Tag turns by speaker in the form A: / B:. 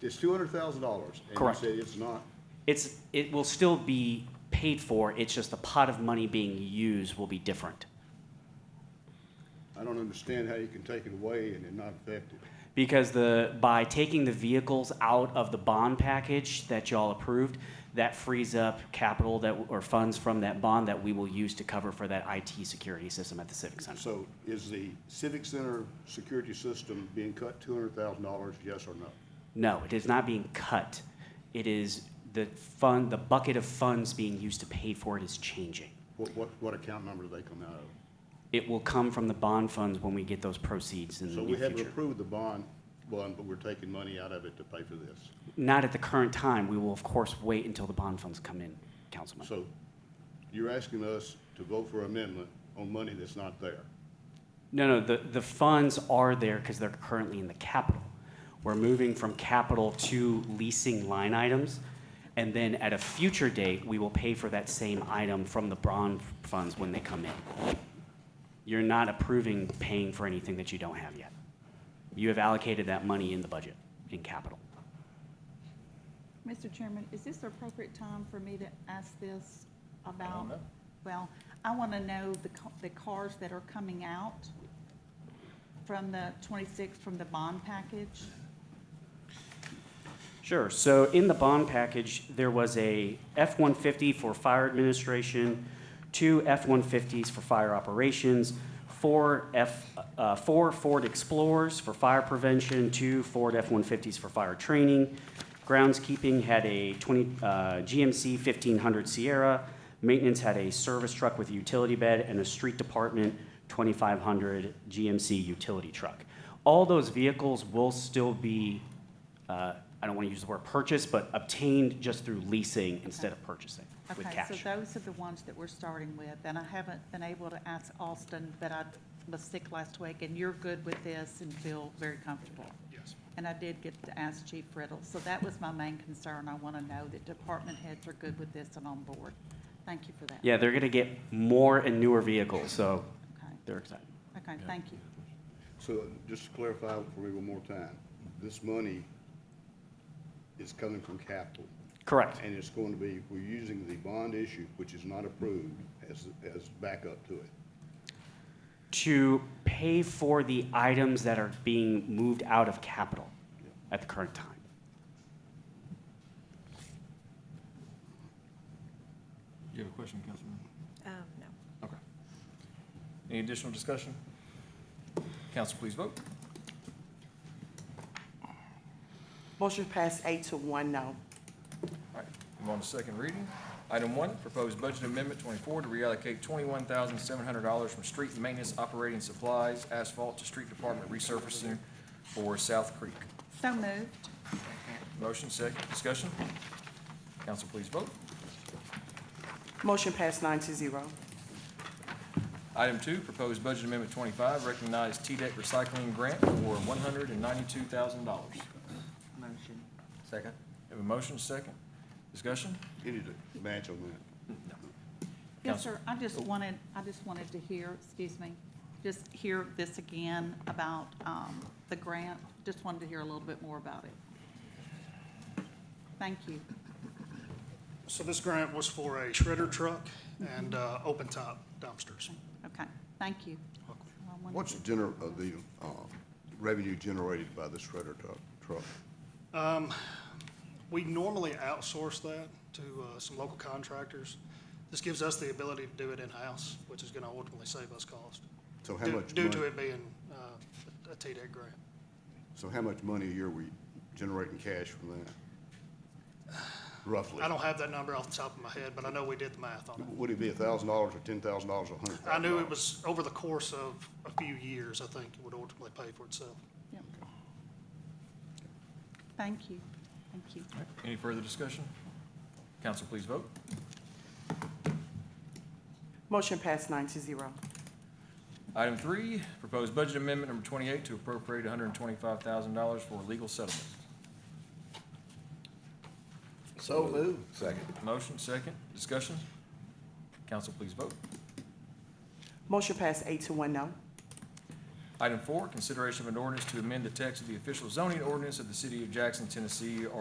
A: It's two hundred thousand dollars.
B: Correct.
A: And you said it's not,
B: It's, it will still be paid for, it's just the pot of money being used will be different.
A: I don't understand how you can take it away and it not affect it.
B: Because the, by taking the vehicles out of the bond package that y'all approved, that frees up capital that, or funds from that bond that we will use to cover for that IT security system at the Civic Center.
A: So is the Civic Center security system being cut two hundred thousand dollars, yes or no?
B: No, it is not being cut. It is the fund, the bucket of funds being used to pay for it is changing.
A: What, what, what account number do they come out of?
B: It will come from the bond funds when we get those proceeds in the
A: So
B: near
A: we haven't
B: future.
A: approved the bond one, but we're taking money out of it to pay for this.
B: Not at the current time. We will, of course, wait until the bond funds come in, Councilman.
A: So you're asking us to vote for amendment on money that's not there.
B: No, no, the, the funds are there because they're currently in the capital. We're moving from capital to leasing line items. And then at a future date, we will pay for that same item from the bond funds when they come in. You're not approving paying for anything that you don't have yet. You have allocated that money in the budget, in capital.
C: Mr. Chairman, is this the appropriate time for me to ask this about? Well, I want to know the, ca- the cars that are coming out from the 26, from the bond package.
B: Sure. So in the bond package, there was a F-150 for fire administration, two F-150s for fire operations, four F, uh, four Ford Explorers for fire prevention, two Ford F-150s for fire training. Groundskeeping had a 20, uh, GMC 1500 Sierra. Maintenance had a service truck with a utility bed and a street department 2500 GMC utility truck. All those vehicles will still be uh, I don't want to use the word purchase, but obtained just through leasing instead of purchasing with
C: Okay,
B: cash.
C: so those are the ones that we're starting with, and I haven't been able to ask Austin, but I was sick last week, and you're good with this and feel very comfortable. Yes. And I did get to ask Chief Riddle, so that was my main concern. I want to know that department heads are good with this and on board. Thank you for that.
B: Yeah, they're going to get more and newer vehicles, so
C: Okay.
B: they're excited.
C: Okay, thank you.
A: So just to clarify for me one more time, this money is coming from capital.
B: Correct,
A: And it's going to be, we're using the bond issue, which is not approved, as, as backup to it.
B: to pay for the items that are being moved out of capital at the current time.
D: You have a question, Councilman?
E: Um, no.
D: Okay. Any additional discussion? Council, please vote.
F: Motion passed eight to one no.
D: All right, move on to second reading. Item one, proposed budget amendment twenty-four to reallocate twenty-one thousand seven hundred dollars from street maintenance operating supplies, asphalt to street department resurfacing for South Creek.
C: So moved.
D: Motion, second, discussion? Council, please vote.
F: Motion passed nine to zero.
D: Item two, proposed budget amendment twenty-five, recognize TDEC recycling grant for one hundred and ninety-two thousand dollars.
F: Motion.
D: Second. Have a motion, second, discussion?
A: You need to match on that.
C: Yes,
D: Counsel.
C: sir, I just wanted, I just wanted to hear, excuse me, just hear this again about um, the grant. Just wanted to hear a little bit more about it. Thank you.
G: So this grant was for a shredder truck and uh, open top dumpsters.
C: Okay, thank you. I wanted
A: What's the gener, uh, the, uh, revenue generated by the shredder truck, truck?
G: We normally outsource that to uh, some local contractors. This gives us the ability to do it in-house, which is going to ultimately save us cost.
A: So how
G: due-
A: much
G: Due to
A: money-
G: it being uh, a TDEC grant.
A: So how much money a year we generating cash from that? Roughly?
G: I don't have that number off the top of my head, but I know we did the math on it.
A: Would it be a thousand dollars or ten thousand dollars or a hundred?
G: I knew it was over the course of a few years, I think it would ultimately pay for itself.
C: Yep. Thank you, thank you.
D: All right, Any further discussion? Council, please vote.
F: Motion passed nine to zero.
D: Item three, proposed budget amendment number twenty-eight to appropriate one hundred and twenty-five thousand dollars for legal settlement.
H: So moved. Second.
D: Motion, second, discussion? Council, please vote.
F: Motion passed eight to one no.
D: Item four, consideration of an ordinance to amend the text of the official zoning ordinance of the city of Jackson, Tennessee,